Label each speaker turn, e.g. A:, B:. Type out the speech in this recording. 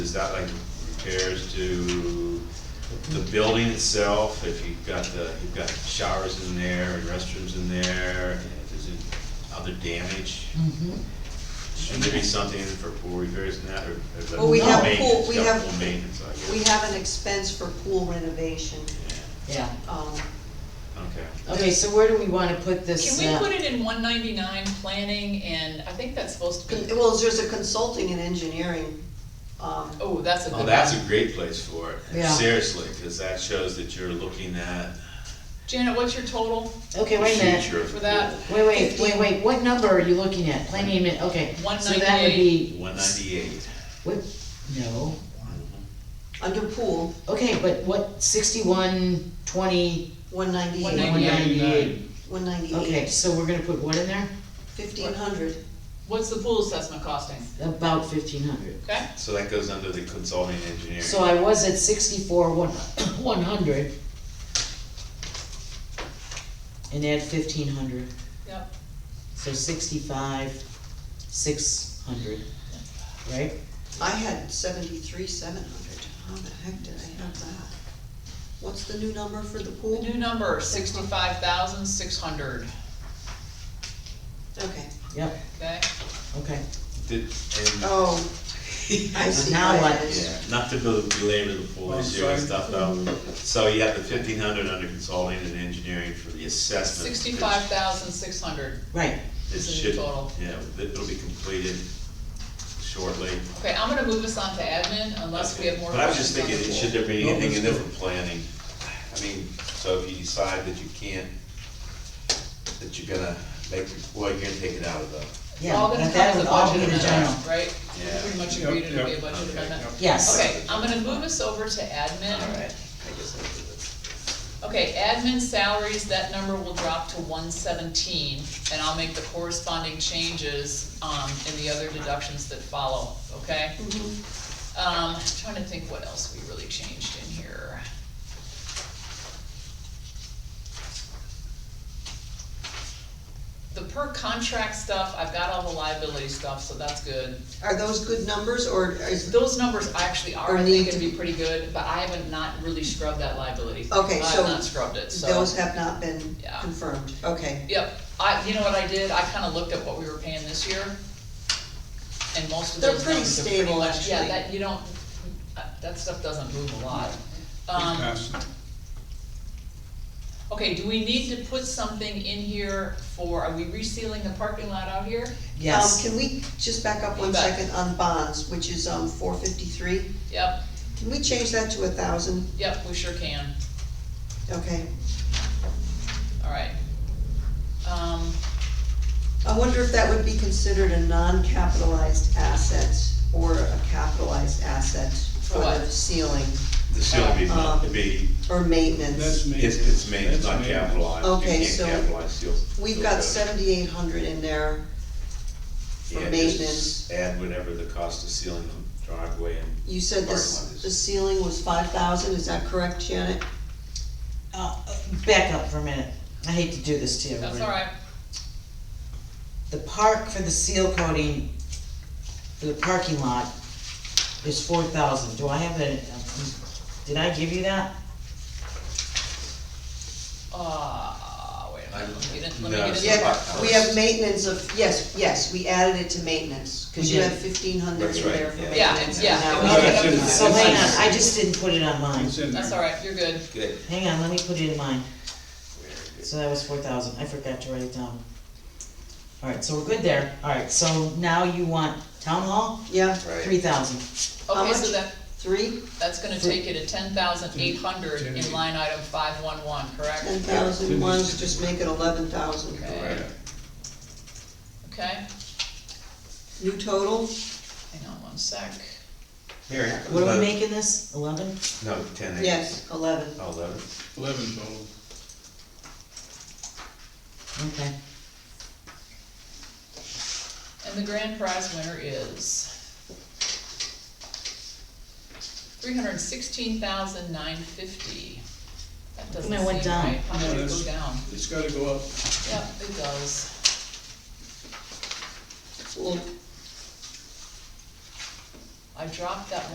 A: Is that like repairs to the building itself, if you've got the, you've got showers in there and restrooms in there, and is it other damage?
B: Mm-hmm.
A: Shouldn't there be something for pool repairs and that, or? or the
C: Well, we have
A: maintenance,
C: pool- we
A: got
C: have-
A: Pool maintenance, I guess.
C: We have an expense for pool renovation.
A: Yeah,
B: Yeah,
C: Um,
A: Okay,
B: okay, so where do we wanna put this?
D: Can we
B: uh,
D: put it in one ninety-nine planning and, I think that's supposed to be,
C: Well, there's a consulting and engineering, um,
D: oh, that's a good
A: well,
D: one.
A: that's a great place for it,
B: Yeah.
A: seriously, cause that shows that you're looking at
D: Janet, what's your total
B: Okay,
A: the
B: wait a minute,
A: future of.
D: for that?
B: wait, wait, wait,
C: Fifteen.
B: wait, what number are you looking at? Planning admin, okay, so that would be.
A: One ninety-eight.
B: What, no,
C: under pool,
B: okay, but what, sixty-one, twenty,
C: one
B: one
C: ninety-eight,
D: 198.
B: ninety-eight?
C: one
B: Okay,
C: ninety-eight,
B: so we're gonna put what in there?
C: fifteen hundred.
D: What's the pool assessment costing,
B: About fifteen hundred.
D: okay?
A: So that goes under the consulting engineering.
B: So I was at sixty-four, one, one hundred. And add fifteen hundred,
D: Yep,
B: so sixty-five, six hundred, right?
C: I had seventy-three, seven hundred. How the heck did I have that? What's the new number for the
D: the
C: pool?
D: new number, sixty-five thousand, six hundred,
C: Okay.
B: Yep,
D: okay?
B: okay.
A: Did, and
C: Oh, I see
B: Now
C: how
B: what?
C: it is.
A: Yeah, not to bel- belabor the full issue and stuff though, so you have the fifteen hundred under consulting and engineering for the assessment.
D: Sixty-five thousand, six hundred,
B: Right,
A: It
D: is the
A: should,
D: total.
A: yeah, it'll be completed shortly.
D: okay, I'm gonna move us on to admin unless we have more
A: But I was just
D: questions on the
A: thinking,
D: pool.
A: should there be anything in there for planning? I mean, so if you decide that you can't, that you're gonna make, well, you're gonna take it out of the,
D: It's
B: yeah,
D: all gonna
B: but
D: come
B: that
D: as a
B: would all be
D: budget
B: the general.
D: amendment, right? We
A: Yeah.
D: Pretty much
E: Yep,
D: agreed it'd be a
E: yep,
D: budget
A: okay,
D: amendment.
B: Yes.
D: Okay, I'm gonna move us over to admin.
A: alright, I guess I'll do this.
D: Okay, admin salaries, that number will drop to one seventeen, and I'll make the corresponding changes, um, in the other deductions that follow, okay?
C: Mm-hmm.
D: Um, trying to think what else we really changed in here. The per contract stuff, I've got all the liability stuff, so that's good.
C: Are those good numbers, or is,
D: Those numbers actually are,
C: Or
D: I
C: need
D: think,
C: to
D: gonna be
C: be-
D: pretty good, but I haven't not really scrubbed that liability.
C: Okay, so
D: I've not scrubbed it, so.
C: those have not been
D: Yeah.
C: confirmed? Okay.
D: Yep, I, you know what I did, I kinda looked at what we were paying this year, and most of
C: They're
D: those
C: pretty
D: numbers are pretty
C: stable,
D: much, yeah,
C: actually.
D: that, you don't, uh, that stuff doesn't move a lot. Um,
E: Pass.
D: okay, do we need to put something in here for, are we resealing the parking lot out here?
B: Yes,
C: Um, Can we just back up one
D: You bet.
C: second on bonds, which is, um, four fifty-three?
D: Yep,
C: Can we change that to a thousand?
D: yep, we sure can,
C: Okay.
D: alright. Um,
C: I wonder if that would be considered a non-capitalized asset or a capitalized asset for the
D: what?
C: ceiling
A: The ceiling be,
C: Uh,
A: it'd be,
C: or
E: That's
C: maintenance.
E: me.
A: it's, it's made, it's
E: That's
A: not
E: me.
A: capitalized, you
C: Okay,
A: can't
C: so
A: capitalize seals.
C: We've
A: seal
C: got
A: codes.
C: seventy-eight hundred in there for
A: Yeah,
C: maintenance.
A: just add whatever the cost of sealing the driveway and.
C: You said
A: parking lot
C: this,
A: is.
C: the ceiling was five thousand, is that correct, Janet?
B: Uh, back up for a minute, I hate to do this to you.
D: that's
B: but
D: alright,
B: The park for the seal coating, for the parking lot, is four thousand, do I have a, um, did I give you that?
D: uh, wait a minute, let me get in, let me
A: No,
D: get
A: it's
D: in.
A: not
C: Yeah,
A: five
C: we have maintenance of, yes, yes, we added it to maintenance, cause you
B: Yeah.
C: have fifteen hundred
A: That's
C: in
A: right,
C: there for
A: yeah.
D: Yeah,
C: maintenance.
D: yeah,
C: and that was-
D: it
E: No, that's
D: was-
E: in-
B: So
E: it's
B: hang
E: in-
B: on, I just didn't put it on mine,
E: It's in there.
D: That's alright, you're good,
A: Good.
B: hang on, let me put it in mine,
A: Very good.
B: so that was four thousand, I forgot to write it down. Alright, so we're good there, alright, so now you want town hall,
C: Yeah,
A: Right.
B: three thousand,
C: How
D: okay, so
C: much?
D: that,
C: three,
D: That's gonna take you to ten thousand eight hundred
E: Ten-
D: in line item five one one, correct?
C: ten thousand ones, just make it eleven thousand.
D: Okay,
A: Right.
D: okay,
C: New total?
D: hang on one sec.
A: Here, here comes
B: what are
A: another-
B: we making this, eleven?
A: No, ten acres.
C: Yes, eleven.
A: Oh, Eleven.
E: Eleven total.
B: Okay,
D: And the grand prize winner is three hundred sixteen thousand nine fifty. That doesn't
B: No, it went
D: seem
B: down.
D: right, how did
E: No,
D: it
E: that's-
D: go down?
E: It's gotta go up.
D: Yep, it does,
C: Well,
D: I dropped that